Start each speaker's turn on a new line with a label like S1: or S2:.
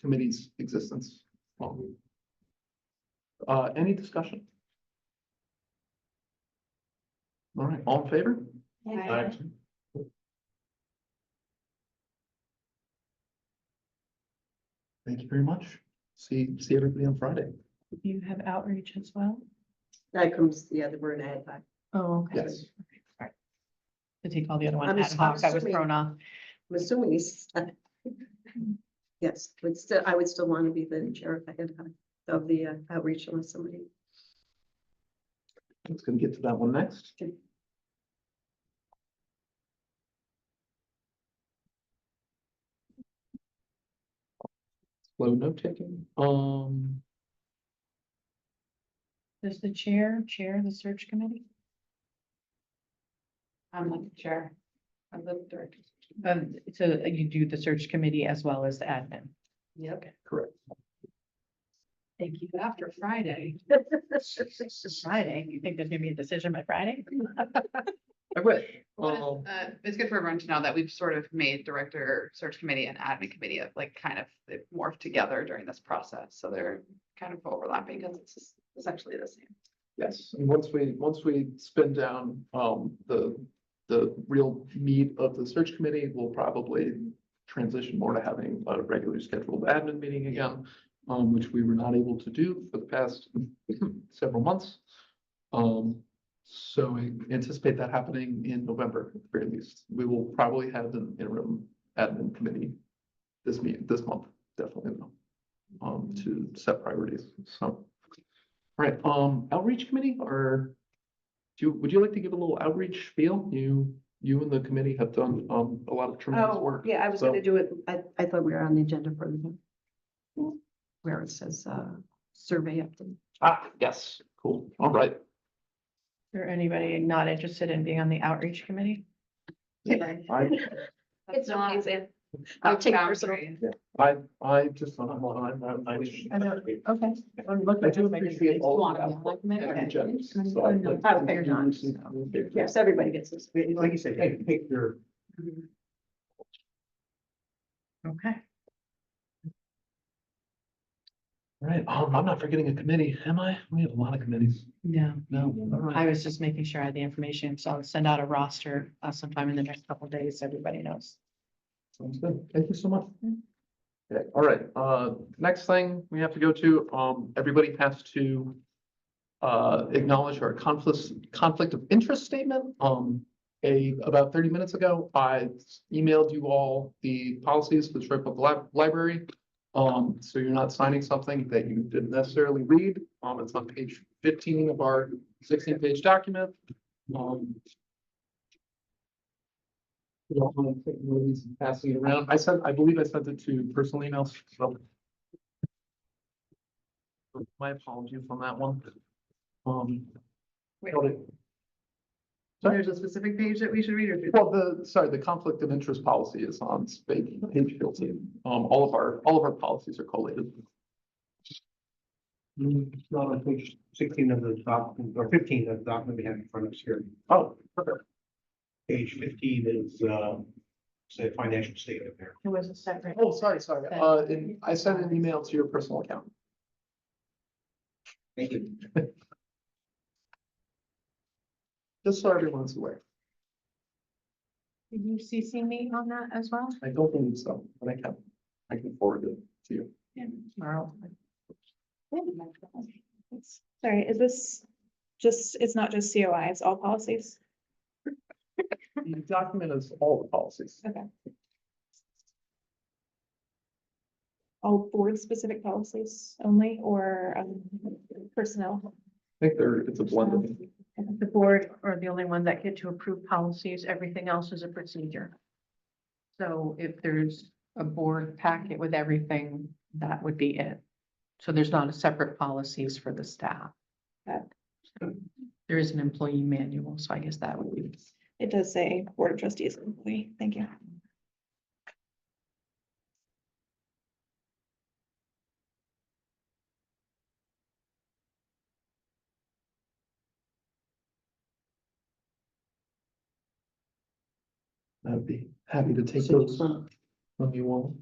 S1: committee's existence. Uh, any discussion? All right, all in favor?
S2: Aye.
S1: Thank you very much. See, see everybody on Friday.
S3: You have outreach as well?
S2: That comes, yeah, the word ad hoc.
S3: Oh, okay.
S1: Yes.
S3: Okay, Sorry. To take all the other one
S2: I'm
S3: ad hoc, I was
S2: assuming-
S3: thrown off.
S2: I'm assuming he's. Yes, but still, I would still want to be the chair of the ad hoc, of the uh, outreach unless somebody.
S1: It's gonna get to that one next.
S2: Okay.
S1: Slow note taking, um,
S3: Does the chair chair the search committee? I'm like the chair. I'm the director. Um, so you do the search committee as well as the admin?
S2: Yep.
S1: correct.
S3: Thank you. After Friday. Friday, you think there's gonna be a decision by Friday?
S1: I wish.
S4: Well, it's,
S1: Um,
S4: uh, It's good for everyone to know that we've sort of made director, search committee and admin committee of like kind of they've morphed together during this process. So they're kind of overlapping because it's essentially the same.
S1: Yes, and once we, once we spin down, um, the, the real meat of the search committee, we'll probably transition more to having a regularly scheduled admin meeting again, um, which we were not able to do for the past several months. Um, so I anticipate that happening in November, at the very least. We will probably have an interim admin committee this meet, this month, definitely, um, to set priorities, so. Right, um, outreach committee or do, you- would you like to give a little outreach spiel? You, you and the committee have done, um, a lot of tremendous
S2: Oh,
S1: work.
S2: yeah, I was
S1: so-
S2: gonna do it. I, I thought we were on the agenda for the. Where it says, uh, survey update.
S1: Ah, yes, cool, all right.
S3: Or anybody not interested in being on the outreach committee?
S1: I,
S2: It's
S4: not
S2: okay, Sam. I'll take personal.
S4: boundaries.
S1: I, I just, I'm, I'm, I'm- I wish.
S3: I know. Okay.
S1: I do appreciate all of that. And Jenn's, so I'd like to
S2: Oh, fair enough.
S1: introduce you.
S2: Yes, everybody gets this.
S1: Like you said, hey, pick your.
S3: Okay.
S1: All Right, um, I'm not forgetting a committee, am I? We have a lot of committees.
S3: Yeah.
S1: No. all right.
S3: I was just making sure I had the information, so I'll send out a roster uh, sometime in the next couple of days, so everybody knows.
S1: Sounds good. Thank you so much. Okay, all right, uh, next thing we have to go to, um, everybody has to. Uh, acknowledge our conflicts, conflict of interest statement, um, a, about thirty minutes ago, I emailed you all the policies for the Troy Public Lib- Library. Um, so you're not signing something that you didn't necessarily read, um, it's on page fifteen of our sixteen-page document. Um, you don't want to take one of these and passing it around. I sent, I believe I sent it to personal emails. so. My apologies on that one. Um.
S4: Wait.
S1: got it.
S4: There's a specific page that we should read or? do-
S1: Well, the, sorry, the conflict of interest policy is on spa- page fifteen. Um, all of our, all of our policies are collated.
S5: Mm, Not on page sixteen of the document, or fifteen of the document we have in front of us here.
S1: Oh, perfect.
S5: Page fifteen is, um, say, financial statement there.
S3: It was a separate.
S1: Oh, sorry, sorry. Uh, and I sent an email to your personal account.
S5: Thank you.
S1: Just so everyone's aware.
S3: Did you CC me on that as well?
S1: I don't believe so, but I can, I can forward it to you.
S3: Yeah. Tomorrow.
S6: Sorry, is this just, it's not just COI, it's all policies?
S1: The document is all the policies.
S6: All board-specific policies only or um, personnel?
S1: I think there, it's a blend of.
S3: The board are the only one that get to approve policies. Everything else is a procedure. So if there's a board packet with everything, that would be it. So there's not a separate policies for the staff.
S6: Okay.
S3: There is an employee manual, so I guess that would be.
S6: It does say Board of Trustees employee, thank you.
S1: I'd be happy to take those from you all.